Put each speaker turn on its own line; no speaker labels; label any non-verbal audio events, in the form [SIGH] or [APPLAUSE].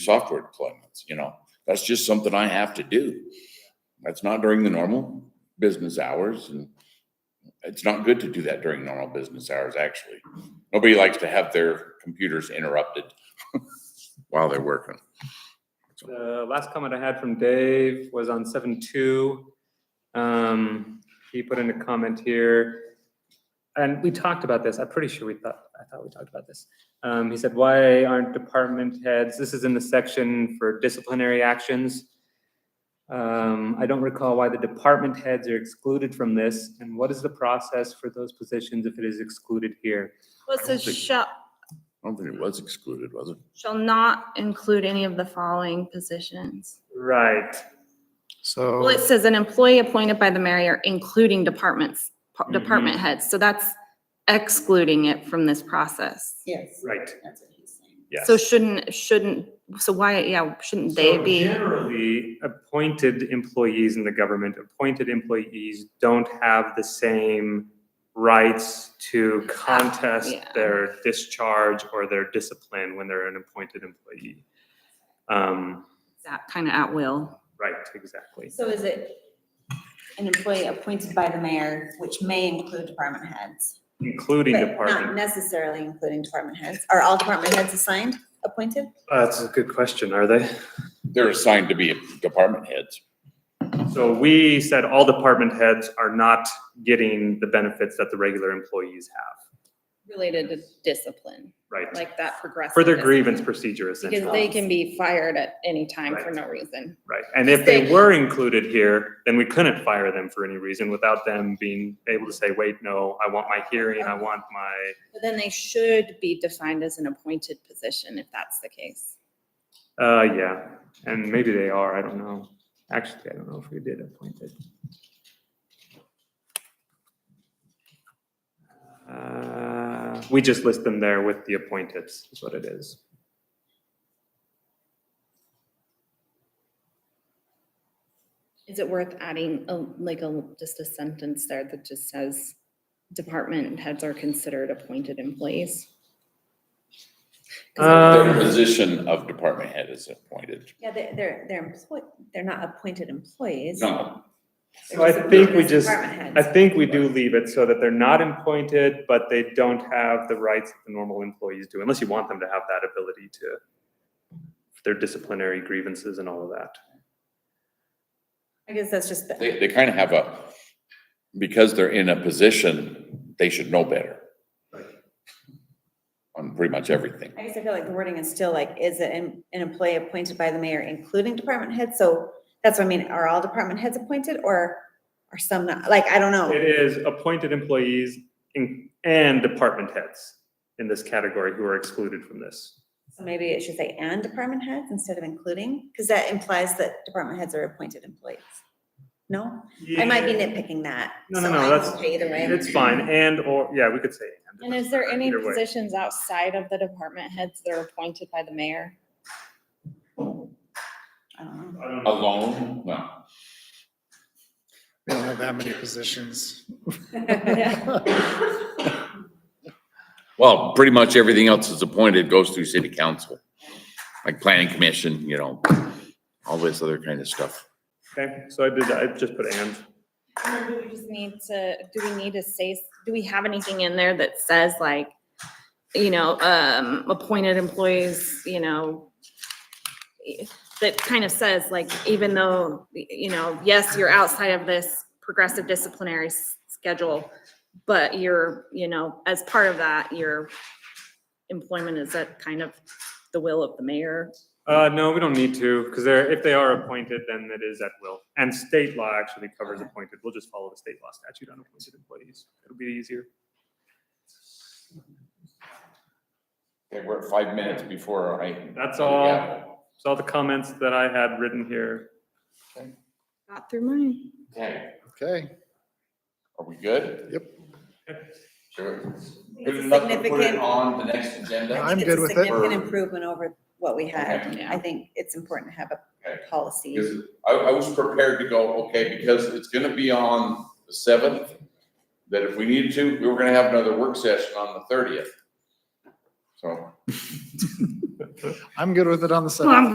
software deployments, you know, that's just something I have to do. That's not during the normal business hours and it's not good to do that during normal business hours, actually. Nobody likes to have their computers interrupted [LAUGHS] while they're working.
The last comment I had from Dave was on seven two. Um, he put in a comment here. And we talked about this. I'm pretty sure we thought, I thought we talked about this. Um, he said, why aren't department heads, this is in the section for disciplinary actions. Um, I don't recall why the department heads are excluded from this and what is the process for those positions if it is excluded here?
Well, it says
think-
shall,
I don't think it was excluded, was it?
shall not include any of the following positions.
Right. Oh.
Well,
So,
it says an employee appointed by the mayor, including departments, pa-
Mhm.
department heads. So that's excluding it from this process.
Yes,
Right.
that's what he's saying.
Yes.
So shouldn't, shouldn't, so why, yeah, shouldn't they
So
be?
Generally, appointed employees in the government, appointed employees don't have the same rights to contest
yeah.
their discharge or their discipline when they're an appointed employee. Um,
That kind of at will.
right, exactly.
So is it an employee appointed by the mayor, which may include department heads?
Including
but Not
department,
necessarily including department heads. Are all department heads assigned, appointed?
Uh, that's a good question, are they?
They're assigned to be department heads.
So we said all department heads are not getting the benefits that the regular employees have,
related to discipline,
right?
like that progressive.
For their
discipline,
grievance procedure essentially.
Because they can be fired at any time for
Right.
no reason.
Right, and if they
They-
were included here, then we couldn't fire them for any reason without them being able to say, wait, no, I want my hearing, I want my,
But then they should be defined as an appointed position if that's the case.
uh, yeah. And maybe they are, I don't know. Actually, I don't know if we did appoint it. Uh, we just list them there with the appointeds, is what it is.
Is it worth adding a, like a, just a sentence there that just says department heads are considered appointed employees? 'Cause
Their
Um,
position of department head is appointed.
Yeah, they're, they're, they're employed, they're not appointed employees.
No,
They're
So I
just
think we
appointed as
just-
department
I
heads.
think we do leave it so that they're not appointed, but they don't have the rights that the normal employees do, unless you want them to have that ability to their disciplinary grievances and all of that.
I guess that's just, the-
they, they kind of have a, because they're in a position, they should know better. On pretty much everything.
I guess I feel like the wording is still like, is it an an employee appointed by the mayor, including department heads? So that's what I mean. Are all department heads appointed or are some not? Like, I don't know.
It is appointed employees in- and department heads in this category who are excluded from this.
So maybe it should say and department heads instead of including, because that implies that department heads are appointed employees. No, I might be nitpicking that.
No, no,
so
no,
I'm
that's-
okay Either way.
It's fine, and or, yeah, we could say.
And is there any
Either way.
positions outside of the department heads that are appointed by the mayor?
I don't know.
I don't know.
Alone? No.
we don't have that many positions.
Well, pretty much everything else that's appointed goes through city council, like planning commission, you know, all this other kind of stuff.
Okay, so I did, I just put and.
And then do we just need to, do we need to say, do we have anything in there that says like, you know, um, appointed employees, you know, that kind of says like, even though, you know, yes, you're outside of this progressive disciplinary s- schedule, but you're, you know, as part of that, your employment is at kind of the will of the mayor.
Uh, no, we don't need to, because they're, if they are appointed, then it is at will. And state law actually covers appointed. We'll just follow the state law statute on appointed employees. It'll be easier.
Okay, we're at five minutes before I.
That's all, that's all the comments that I had written here.
Got through mine.
Okay,
Okay,
are we good?
Yep.
Sure. Good
It's a
enough to put it
significant,
on the next agenda?
I'm
it's
good
a
with it.
significant improvement over what we had.
Okay.
I think it's important to have a
Okay.
policy.
Because I, I was prepared to go, okay, because it's gonna be on the seventh, that if we needed to, we were gonna have another work session on the thirtieth. So.
I'm good with it on the side.
Well, I'm